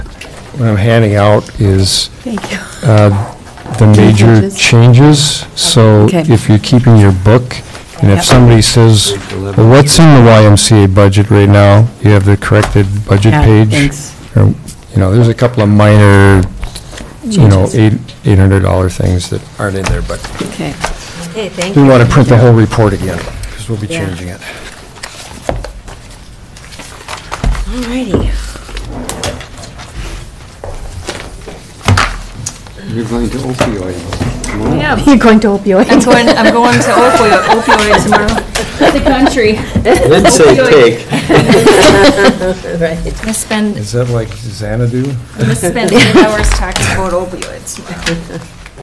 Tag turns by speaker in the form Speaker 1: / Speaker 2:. Speaker 1: what I'm handing out is
Speaker 2: Thank you.
Speaker 1: uh, the major
Speaker 2: changes.
Speaker 1: changes. So
Speaker 2: Okay.
Speaker 1: if you're keeping your book, and
Speaker 2: Yep.
Speaker 1: if somebody says, well, what's in the YMCA budget right now? You have the corrected budget
Speaker 2: Yeah,
Speaker 1: page.
Speaker 2: thanks.
Speaker 1: Or, You know, there's a couple of minor, you know,
Speaker 2: Changes.
Speaker 1: eight $800 things that aren't in there, but
Speaker 2: Okay.
Speaker 3: Okay, thank
Speaker 1: we
Speaker 3: you.
Speaker 1: want to print the whole report again, because we'll be
Speaker 3: Yeah.
Speaker 1: changing it.
Speaker 3: All righty.
Speaker 4: You're going to opioid.
Speaker 2: You're going to opioid.
Speaker 3: I'm going, I'm going to opioid, opioid tomorrow.
Speaker 5: the country.
Speaker 6: Did say take.
Speaker 3: Right.
Speaker 5: I'm gonna spend,
Speaker 1: Is that like Xanadu?
Speaker 5: I'm gonna spend eight hours talking about opioids tomorrow.